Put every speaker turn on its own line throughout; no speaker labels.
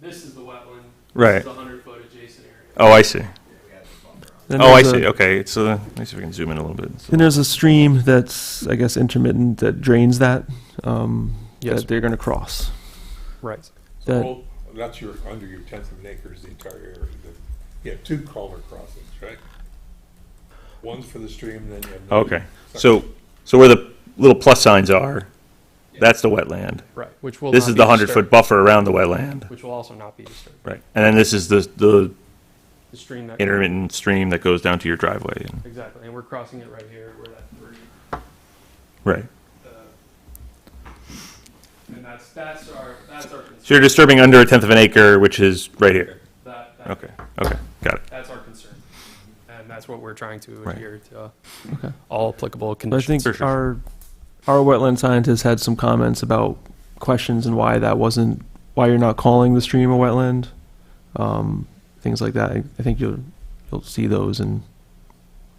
This is the wetland. This
Right.
is the hundred foot adjacent area.
Oh, I see.
Then
Oh, I
there's a-
see. Okay, it's uh, let me see if we can zoom in a little bit.
Then there's a stream that's, I guess, intermittent that drains that, um,
Yes.
that they're going to cross.
Right.
That-
Well, that's your, under your tenth of an acre is the entire area. The- You have two culvert crossings, right? One's for the stream, then you have. another
Oh, Okay,
section.
so so where the little plus signs are, that's the wetland.
Right. Which will.
This
not
is
be
the hundred foot
disturbed,
buffer around the wetland.
Which will also not be disturbed.
Right, and then this is the the
The stream that.
intermittent stream that goes down to your driveway. and-
Exactly.
And we're crossing it right here where that three,
Right.
uh, and that's, that's our, that's our
So
concern.
you're disturbing under a tenth of an acre, which is right here.
That, that-
Okay. Okay. Got it.
That's our concern.
And that's what we're trying to
Right.
adhere to. uh,
Okay.
All applicable
But I
conditions.
think
For sure.
our our wetland scientists had some comments about questions and why that wasn't why you're not calling the stream a wetland, um, things like that. I, I think you'll you'll see those and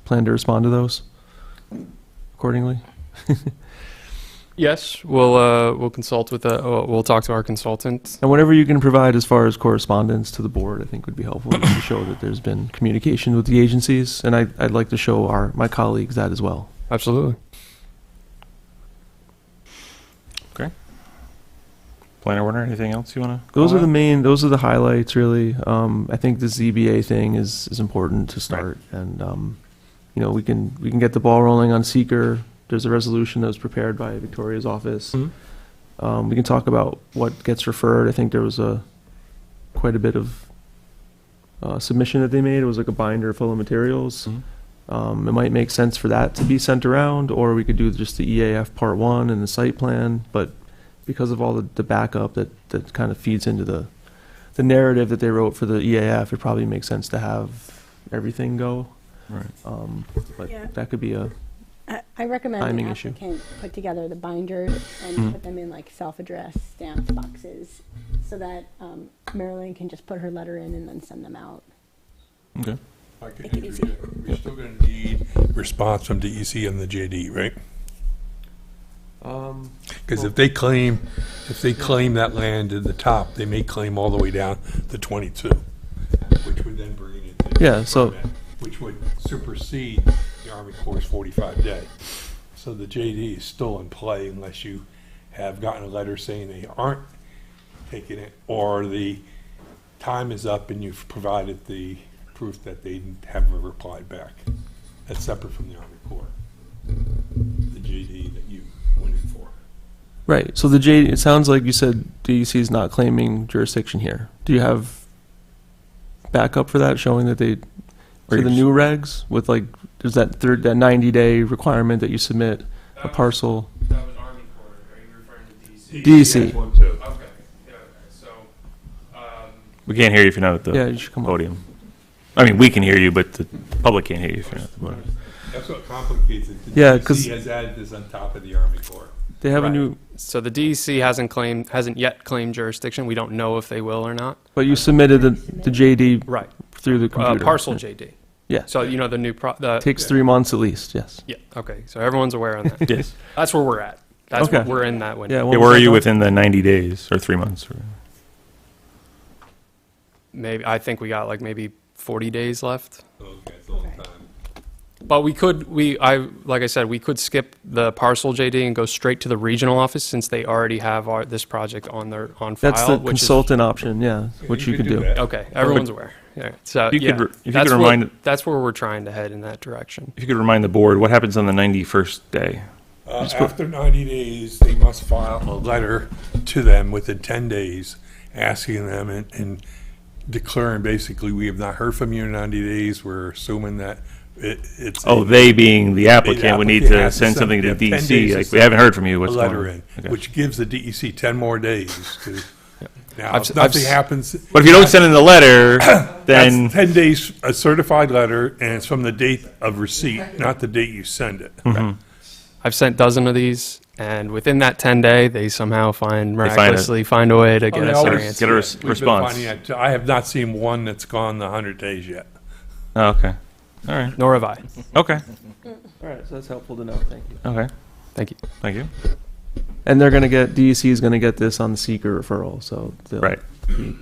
plan to respond to those accordingly.
Yes, we'll, uh, we'll consult with, the- uh, we'll talk to our consultant.
And whatever you can provide as far as correspondence to the board, I think would be helpful to show that there's been communication with the agencies. And I, I'd like to show our my colleagues that as well.
Absolutely.
Planner Warner, anything else you want to?
Those are the main. Those are the highlights, really. Um, I think the ZBA thing is is important to start, and um, you know we can we can get the ball rolling on seeker. There's a resolution that was prepared by Victoria's office.
Mhm.
Um, we can talk about what gets referred. I think there was a quite a bit of uh, submission that they made. It was like a binder full of materials.
Mhm.
Um, it might make sense for that to be sent around, or we could do just the EAF part one and the site plan. But because of all the, the backup that, that kind of feeds into the the narrative that they wrote for the EAF, it probably makes sense to have everything go.
Right.
Um, but
Yeah.
that could be a
I- I recommend an
Timing issue.
applicant put together the binders
Mm.
and put them in like self-addressed stamped boxes so that um, Marilyn can just put her letter in and then send them out.
Okay.
I could
Make it
interview it. We're still gonna need response from DEC and the JD, right?
um,
Because if they claim, if they claim that land in the top, they may claim all the way down to twenty-two, which would then bring it into.
Yeah, so-
Which would supersede the Army Corps forty-five day. So the JD is still in play unless you have gotten a letter saying they aren't taking it, or the time is up and you've provided the proof that they haven't replied back. That's separate from the Army Corps, the JD that you went in for.
right. So the J. It sounds like you said DEC is not claiming jurisdiction here. Do you have backup for that, showing that they for the
Regs.
new regs with like there's that third that 90 day requirement that you submit
That
a
was-
parcel.
That was Army Corps, are you referring to DC?
DEC.
That's one too.
Okay, yeah, okay, so, um,
We can't hear you if you're not at the
Yeah, you should come up.
podium. I mean, we can hear you, but the public can't hear you if you're not at the podium.
That's what complicates it. The
Yeah,
DEC
'cause-
has added this on top of the Army Corps.
They have a
Oh. Right.
new,
So the DEC hasn't claimed, hasn't yet claimed jurisdiction. We don't know if they will or not.
but you submitted the, the JD
Right.
through the
Uh,
computer.
parcel
Yeah.
JD.
Yeah.
So you know the new pro, the,
Takes three months at least. Yes.
yeah, okay. So everyone's aware on that.
Yes.
That's where we're at. That's,
Okay.
we're in that
Yeah.
window.
what
Yeah,
was
where are
that,
you
Don?
within the 90 days or three months? Or,
Maybe, I think we got like maybe 40 days left.
Okay, it's a long
Okay.
time.
But we could, we, I, like I said, we could skip the parcel JD and go straight to the regional office since they already have our, this project on their, on file.
That's the
which is-
consultant option. Yeah,
Yeah,
which you could do.
that.
Okay, everyone's aware. Yeah, so,
You could
yeah.
re- if you could
that's what-
remind-
That's where we're trying to head in that direction.
if you could remind the board, what happens on the 91st day?
Uh, after ninety days, they must file a letter to them within ten days, asking them and, and declaring basically, we have not heard from you in ninety days. We're assuming that it, it's. a-
Oh, they being the applicant would need
applicant
to
has to
send
send-
something
yeah,
to
10
DC,
days
like,
to
we haven't heard from you,
A
what's going on?
letter in,
Okay.
which gives the DEC ten more days to. Now,
I've
if
s- I've
nothing
s-
happens.
But if you don't send in the letter, then,
That's ten days, a certified letter, and it's from the date of receipt, not the date you send it.
Mm-hmm.
I've sent dozen of these, and within that 10 day, they somehow find
find it.
miraculously find a way to
Oh,
get
they
us our
always-
answer.
Get a res-
We've been
response.
finding that, too. I have not seen one that's gone the hundred days yet.
oh, okay, all right,
Nor have I.
okay,
All right, so that's helpful to know. Thank you.
okay,
Thank you.
thank you.
E And they're gonna get DEC is gonna get this on the seeker referral, so they'll
Right.